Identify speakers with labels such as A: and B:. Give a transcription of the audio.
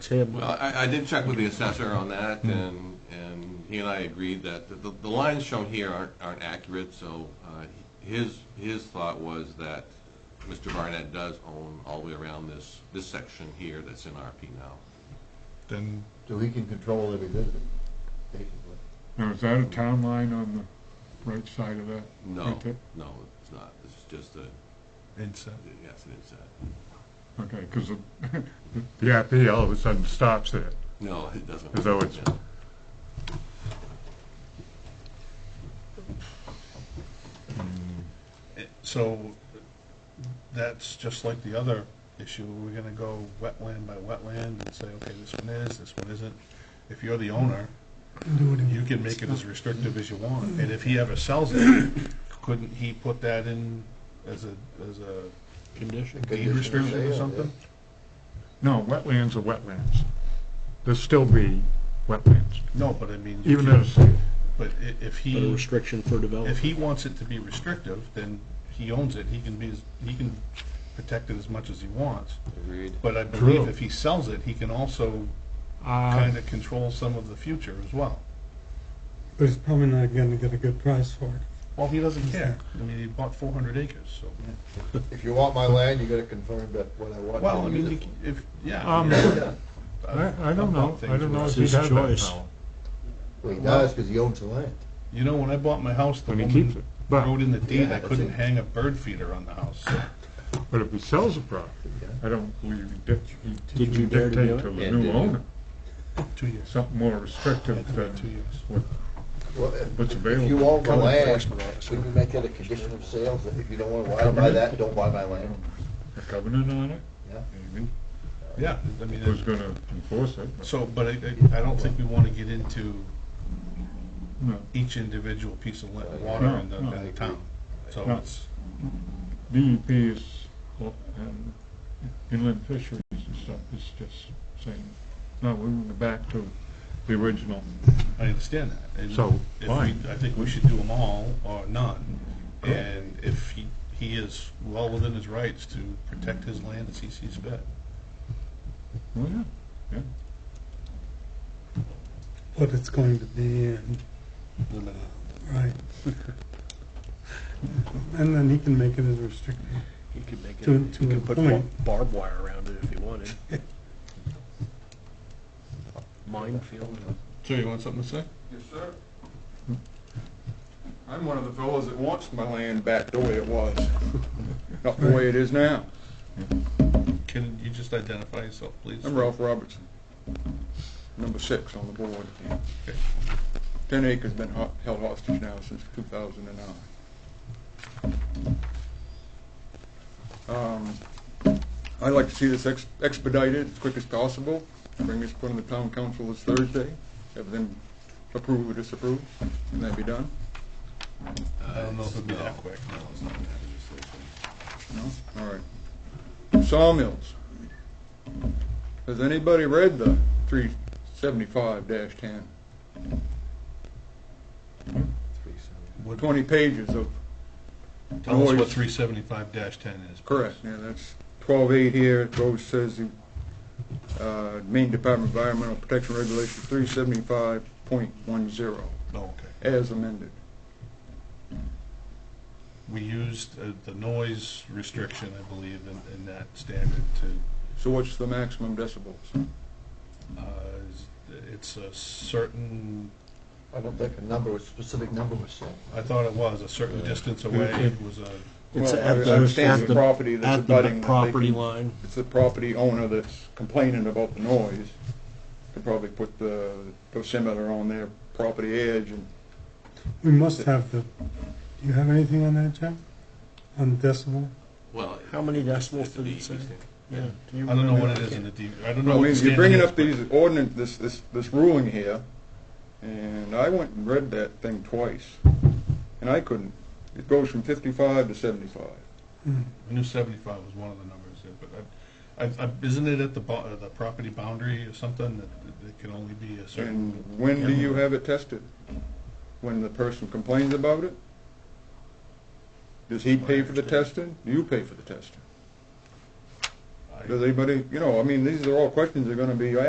A: Tim,
B: Well, I, I did check with the assessor on that, and, and he and I agreed that the, the lines shown here aren't, aren't accurate, so, uh, his, his thought was that Mr. Barnett does own all the way around this, this section here that's in RP now.
C: Then,
D: So he can control every visit, basically.
C: now is that a town line on the right side of that?
B: No,
C: Right there?
B: no, it's not, it's just a,
E: Inset.
B: yes, it is that.
C: Okay, because the IP all of a sudden stops there.
B: No, it doesn't.
C: As though it's-
B: Yeah.
E: So that's just like the other issue. We're gonna go wetland by wetland and say, okay, this one is, this one isn't. If you're the owner, you can make it as restrictive as you want. And if he ever sells it, couldn't he put that in as a, as a
B: Condition?
E: deed restriction
D: Condition
E: or
D: of sale,
E: something?
C: No, wetlands are wetlands. There'll still be wetlands,
E: No, but I mean,
C: even
E: if,
C: as, and
E: but i- if
A: but a
E: he,
A: restriction for
E: if
A: development.
E: he wants it to be restrictive, then he owns it. He can be, as he can protect it as much as he wants.
B: Agreed.
E: But I
C: True. Uh,
E: believe if he sells it, he can also kind
C: I
E: of control some of the future as well.
F: But he's probably not gonna get a good price for it.
E: Well, he doesn't care. I mean, he bought four hundred acres, so.
D: If you want my land, you gotta confirm that what I want.
E: Well, I
D: you
E: mean,
D: do.
E: he c- if, yeah.
C: Um,
E: yeah.
C: I
E: I've
C: don't know,
E: bought
C: I don't
E: things where-
C: know if
A: It's
C: he
A: his
C: has that
A: choice.
C: power
D: Well, he does, cause he owns the land.
E: You know, when I bought my house, the
C: when he keeps
E: woman
C: it.
E: wrote
C: But,
E: in the deed,
D: Yeah,
E: I
D: that's
E: couldn't
D: it.
E: hang a bird feeder on the house. so-
C: but if he sells the property, I don't believe he dic- he- he
A: Did you
C: can
A: dare to do
C: dictate
A: it?
C: to the
B: Yeah,
C: new
B: did you?
C: owner,
E: Two years.
C: something more
E: I
C: restrictive
E: had to wait two
C: than
E: years.
C: what
D: Well, if-
C: What's
D: If you
C: available.
D: own the
E: Code
D: land,
E: enforcement officer.
D: wouldn't you make that a condition of sales? that If you don't wanna buy that, don't buy my land.
C: a covenant on it,
D: Yeah.
C: maybe,
E: Yeah, I mean,
C: who's
E: it-
C: gonna enforce it, but,
E: so, but I, I I don't think we want to get into
C: no.
E: each individual piece of la- water in the,
C: No, no,
E: in the town. So
C: No.
E: it's,
C: DEP E is, well, and inland fisheries and stuff is just saying, no, we want to go back to the original.
E: I understand that. And
C: So,
E: if
C: fine.
E: we- I think we should do them all or none. And if he, he is well within his rights to protect his land as he sees fit.
C: Well, yeah, yeah.
F: What it's going to be and, right. And then he can make it as restrictive.
A: He could make it,
F: To-
A: he
F: to a
A: could put
F: point.
A: barbed wire around it if he wanted. Minefield.
E: Joe, you want something to say?
G: Yes, sir. I'm one of the fellows that wants my land back the way it was, not the way it is now.
E: Can you just identify yourself, please?
G: I'm Ralph Robertson, number six on the board. Ten acres been ho- held hostage now since 2009. Um, I'd like to see this ex- expedited as quick as possible, bring this in the town council this Thursday, have them approve or disapprove, and that be done.
E: I don't know if it'd be that quick.
G: No? All right. Sawmills. Has anybody read the three seventy-five ten? Twenty pages of,
E: Tell us what
G: Noise.
E: three seventy-five ten is. please.
G: correct, yeah, that's twelve eight here, it goes, says the, uh, Maine Department of Environmental Protection Regulation three seventy-five point one zero,
E: Oh, okay.
G: as amended.
E: We used uh, the noise restriction, I believe, in, in that standard to,
G: So what's the maximum decibels?
E: uh, is- it's a certain,
D: I don't think a number, a specific number was set.
E: I thought it was, a certain distance away
C: Okay.
E: was a,
A: It's
G: Well,
A: at
G: I
A: the-
G: understand
A: at
G: the property that's
A: At the
G: abutting that they
A: property
G: can-
A: line.
G: it's the property owner that's complaining about the noise, could probably put the dosimeter on their property edge and
F: We must have the, do you have anything on that, Jack? On decibel?
B: Well,
A: How many decibels
B: it's a
A: did
B: D,
A: it say?
B: he's saying.
A: Yeah. Do you
E: I don't know
A: remember?
E: what it is in the, D- I don't know.
G: I
E: what
G: mean,
E: the
G: you're
E: standard
G: bringing
E: is,
G: up these ordinance, this, this, this ruling here, and I went and read that thing twice, and I couldn't. It goes from fifty-five to seventy-five.
E: I knew seventy-five was one of the numbers there, but I, I, I, isn't it at the bo- uh, the property boundary or something that that it can only be a certain?
G: And when do you have it tested? When the person complains about it? Does he pay for the testing? Do you pay for the testing?
E: I-
G: Does anybody, you know, I mean, these are all questions that are gonna be